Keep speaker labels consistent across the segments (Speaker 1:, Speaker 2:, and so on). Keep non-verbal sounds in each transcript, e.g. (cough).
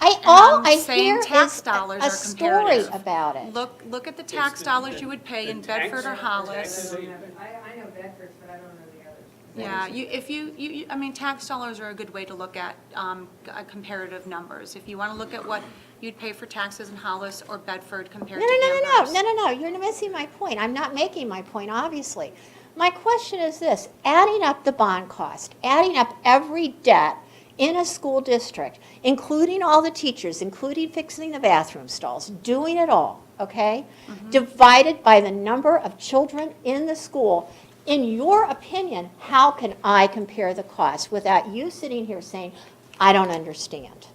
Speaker 1: I,
Speaker 2: And
Speaker 1: all
Speaker 2: I'm
Speaker 1: I
Speaker 2: saying
Speaker 1: hear
Speaker 2: tax
Speaker 1: is
Speaker 2: dollars
Speaker 1: a
Speaker 2: are
Speaker 1: story
Speaker 2: comparative.
Speaker 1: about it.
Speaker 2: Look, look at the tax dollars you would pay in Bedford or Hollis.
Speaker 3: Taxes.
Speaker 4: I, I know Bedford's, but I don't know the others.
Speaker 2: Yeah, you, if you, you, you- I mean, tax dollars are a good way to look at um, uh, comparative numbers. If you want to look at what you'd pay for taxes in Hollis or Bedford compared
Speaker 1: No,
Speaker 2: to
Speaker 1: no, no, no, no,
Speaker 2: Amherst.
Speaker 1: no, no, no, you're missing my point. I'm not making my point, obviously. My question is this, adding up the bond cost, adding up every debt in a school district, including all the teachers, including fixing the bathroom stalls, doing it all, okay?
Speaker 2: Mm-hmm.
Speaker 1: Divided by the number of children in the school, in your opinion, how can I compare the cost without you sitting here saying, I don't understand?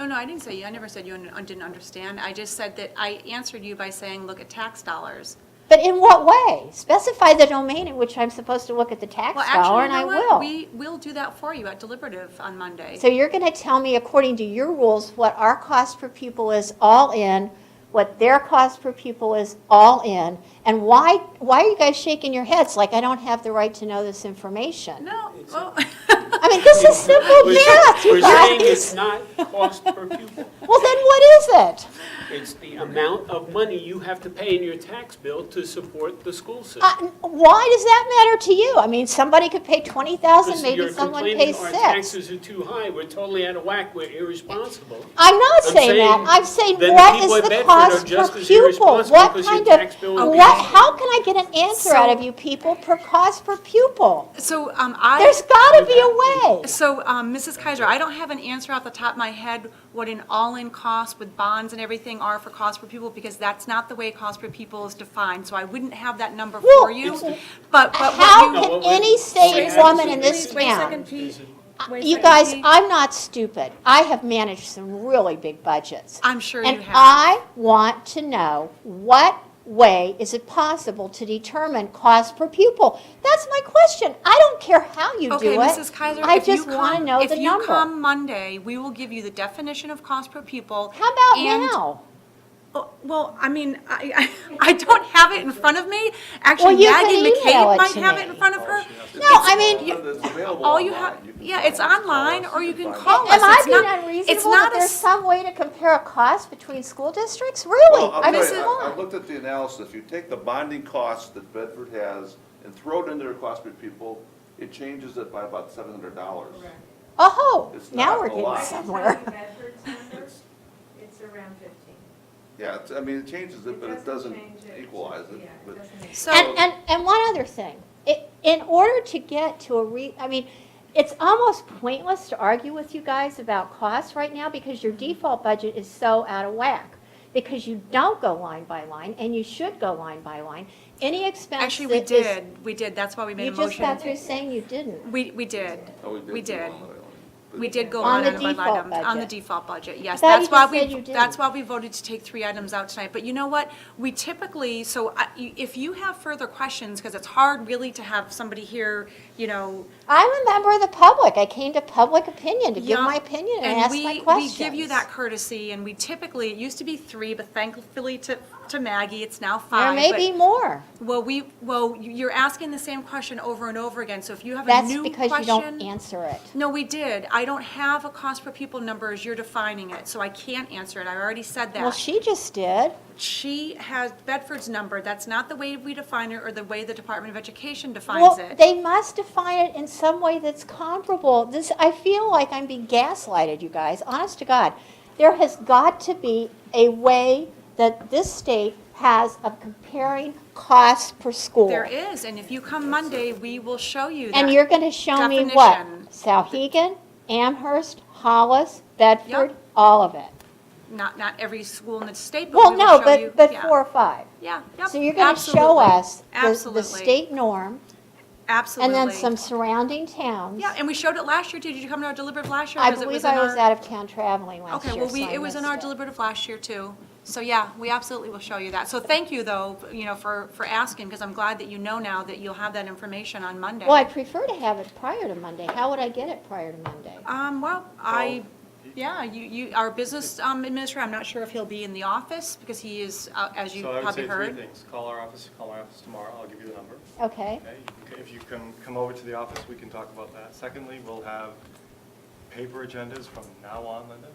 Speaker 2: No, no, I didn't say you, I never said you un- didn't understand. I just said that I answered you by saying, look at tax dollars.
Speaker 1: But in what way? Specify the domain in which I'm supposed to look at the tax
Speaker 2: Well,
Speaker 1: dollar,
Speaker 2: actually,
Speaker 1: and
Speaker 2: you know
Speaker 1: I will.
Speaker 2: what? We will do that for you at deliberative on Monday.
Speaker 1: So you're going to tell me, according to your rules, what our cost per pupil is all in, what their cost per pupil is all in, and why, why are you guys shaking your heads like I don't have the right to know this information?
Speaker 2: No, well,
Speaker 1: I mean, this is simple
Speaker 3: We're-
Speaker 1: math, you
Speaker 3: We're saying it's
Speaker 1: guys.
Speaker 3: not cost per pupil.
Speaker 1: Well, then what is it?
Speaker 3: It's the amount of money you have to pay in your tax bill to support the school system.
Speaker 1: Uh, Why does that matter to you? I mean, somebody could pay 20,000,
Speaker 3: Because
Speaker 1: maybe
Speaker 3: you're
Speaker 1: someone
Speaker 3: complaining
Speaker 1: pays
Speaker 3: Our
Speaker 1: six.
Speaker 3: taxes are too high, we're totally out of whack, we're irresponsible.
Speaker 1: I'm not
Speaker 3: I'm
Speaker 1: saying that.
Speaker 3: saying
Speaker 1: I'm saying
Speaker 3: then
Speaker 1: what is the
Speaker 3: the people at Bedford
Speaker 1: cost
Speaker 3: are just
Speaker 1: per
Speaker 3: as
Speaker 1: pupil?
Speaker 3: irresponsible
Speaker 1: What
Speaker 3: because your
Speaker 1: kind
Speaker 3: tax
Speaker 1: of,
Speaker 3: bill will
Speaker 2: be
Speaker 1: what,
Speaker 3: higher.
Speaker 1: how can I get an answer out of you people per cost per pupil?
Speaker 2: (laughs) so um, I.
Speaker 1: There's gotta be a way.
Speaker 2: So, um, Mrs. Kaiser, I don't have an answer off the top of my head what an all-in cost with bonds and everything are for cost per pupil, because that's not the way cost per pupil is defined, so I wouldn't have that number for
Speaker 1: Well,
Speaker 2: you.
Speaker 3: It's the-
Speaker 2: But, but
Speaker 1: How
Speaker 2: what you,
Speaker 3: No,
Speaker 1: can
Speaker 3: what we-
Speaker 1: any sane
Speaker 3: Please,
Speaker 1: woman in
Speaker 3: please,
Speaker 1: this
Speaker 4: Wait a second,
Speaker 1: town?
Speaker 4: Pete. Wait a
Speaker 1: You
Speaker 4: second,
Speaker 1: guys,
Speaker 4: Pete.
Speaker 1: I'm not stupid. I have managed some really big budgets.
Speaker 2: I'm sure you
Speaker 1: And
Speaker 2: have.
Speaker 1: I want to know what way is it possible to determine cost per pupil? That's my question. I don't care how you do it.
Speaker 2: Okay, Mrs. Kaiser,
Speaker 1: I
Speaker 2: if you
Speaker 1: just want to
Speaker 2: come,
Speaker 1: know
Speaker 2: if
Speaker 1: the
Speaker 2: you
Speaker 1: number.
Speaker 2: come Monday, we will give you the definition of cost per pupil.
Speaker 1: How about
Speaker 2: and-
Speaker 1: now?
Speaker 2: Oh, Well, I mean, I, (laughs) I I don't have it in front of me.
Speaker 1: Well,
Speaker 2: Actually,
Speaker 1: you can
Speaker 2: Maggie
Speaker 1: email it
Speaker 2: McCabe might
Speaker 1: to
Speaker 2: have it in
Speaker 1: me.
Speaker 2: front of her.
Speaker 1: No, I mean,
Speaker 2: you-
Speaker 5: all
Speaker 2: All you have, yeah, it's online, or you can call
Speaker 1: Am
Speaker 2: us.
Speaker 1: I
Speaker 2: It's
Speaker 1: being
Speaker 2: not- It's
Speaker 1: unreasonable that
Speaker 2: not a
Speaker 1: there's
Speaker 2: s-
Speaker 1: some way to compare a cost between school districts? Really?
Speaker 5: Well,
Speaker 1: I
Speaker 5: I'm
Speaker 1: mean,
Speaker 5: sorry,
Speaker 1: come
Speaker 5: I I
Speaker 1: on.
Speaker 5: looked at the analysis, you take the bonding cost that Bedford has and throw it into their cost per pupil, it changes it by about seven hundred dollars.
Speaker 1: Oh,
Speaker 5: It's
Speaker 1: now
Speaker 5: not
Speaker 1: we're
Speaker 5: a
Speaker 1: getting
Speaker 5: lot.
Speaker 4: I can tell
Speaker 1: somewhere.
Speaker 4: you Bedford's number, it's around fifteen.
Speaker 5: Yeah, it's, I mean, it changes it, but it doesn't
Speaker 4: change it.
Speaker 5: equalize it,
Speaker 4: Yeah,
Speaker 5: but
Speaker 4: doesn't
Speaker 2: (laughs)
Speaker 4: equalize
Speaker 2: So,
Speaker 1: And, and, and one other thing, I in order to get to a re, I mean, it's almost pointless to argue with you guys about costs right now because your default budget is so out of whack. Because you don't go line by line and you should go line by line. Any expense
Speaker 2: actually, we
Speaker 1: that is-
Speaker 2: did, we did, that's why we made
Speaker 1: You
Speaker 2: a
Speaker 1: just got
Speaker 2: motion.
Speaker 1: through saying you didn't.
Speaker 2: We, we did,
Speaker 5: oh, we did.
Speaker 2: we
Speaker 5: do
Speaker 2: did,
Speaker 5: one other one. But-
Speaker 2: we did go
Speaker 1: On
Speaker 2: line
Speaker 1: the
Speaker 2: item by
Speaker 1: default
Speaker 2: item, on the
Speaker 1: budget.
Speaker 2: default budget, yes.
Speaker 1: thought you
Speaker 2: That's why
Speaker 1: just said
Speaker 2: we,
Speaker 1: you didn't.
Speaker 2: that's why we voted to take three items out tonight, but you know what? We typically, so I- you- if you have further questions, because it's hard really to have somebody here, you know,
Speaker 1: I'm a member of the public. I came to public opinion to give
Speaker 2: Yeah.
Speaker 1: my opinion and,
Speaker 2: And
Speaker 1: ask
Speaker 2: we,
Speaker 1: my
Speaker 2: we
Speaker 1: questions.
Speaker 2: give you that courtesy, and we typically, it used to be three, but thankfully to, to Maggie, it's now
Speaker 1: There
Speaker 2: five.
Speaker 1: may
Speaker 2: but-
Speaker 1: be more.
Speaker 2: Well, we, well, you- you're asking the same question over and over again, so if you have a
Speaker 1: That's
Speaker 2: new
Speaker 1: because you don't
Speaker 2: question.
Speaker 1: answer it.
Speaker 2: No, we did. I don't have a cost per pupil number as you're defining it, so I can't answer it. I already said
Speaker 1: Well,
Speaker 2: that.
Speaker 1: she just did.
Speaker 2: She has Bedford's number. That's not the way we define it or the way the Department of Education defines
Speaker 1: Well,
Speaker 2: it.
Speaker 1: they must define it in some way that's comparable. This, I feel like I'm being gaslighted, you guys, honest to God. There has got to be a way that this state has of comparing costs per school.
Speaker 2: There is, and if you come Monday, we will show you that.
Speaker 1: And you're going to show me what?
Speaker 2: definition.
Speaker 1: Sauhegan, Amherst, Hollis, Bedford, all of it.
Speaker 2: Not, not every school in the state, but
Speaker 1: Well,
Speaker 2: we
Speaker 1: no,
Speaker 2: will show you.
Speaker 1: but, but
Speaker 2: yeah.
Speaker 1: four or five.
Speaker 2: Yeah, yep,
Speaker 1: So you're going to show
Speaker 2: absolutely,
Speaker 1: us the, the
Speaker 2: absolutely,
Speaker 1: state norm and
Speaker 2: Absolutely.
Speaker 1: then some surrounding towns.
Speaker 2: Yeah, and we showed it last year, too. Did you come to our deliberative last year?
Speaker 1: I
Speaker 2: 'Cause it
Speaker 1: believe
Speaker 2: in
Speaker 1: I was
Speaker 2: our-
Speaker 1: out of town traveling last year.
Speaker 2: Okay, well, we,
Speaker 1: so I
Speaker 2: it was in our
Speaker 1: missed it.
Speaker 2: deliberative last year, too. So, yeah, we absolutely will show you that. So thank you, though, you know, for, for asking, because I'm glad that you know now that you'll have that information on Monday.
Speaker 1: Well, I prefer to have it prior to Monday. How would I get it prior to Monday?
Speaker 2: Um, well, I,
Speaker 6: Oh.
Speaker 2: yeah, you, you, our business um, administrator, I'm not sure if he'll be in the office, because he is, uh, as you
Speaker 6: So I would
Speaker 2: probably
Speaker 6: say
Speaker 2: heard.
Speaker 6: three things. Call our office, call our office tomorrow. I'll give you the number.
Speaker 2: Uh,
Speaker 1: Okay,
Speaker 6: Okay? You can- If you can come over to the office, we can talk about that. Secondly, we'll have paper agendas from now on, Linda.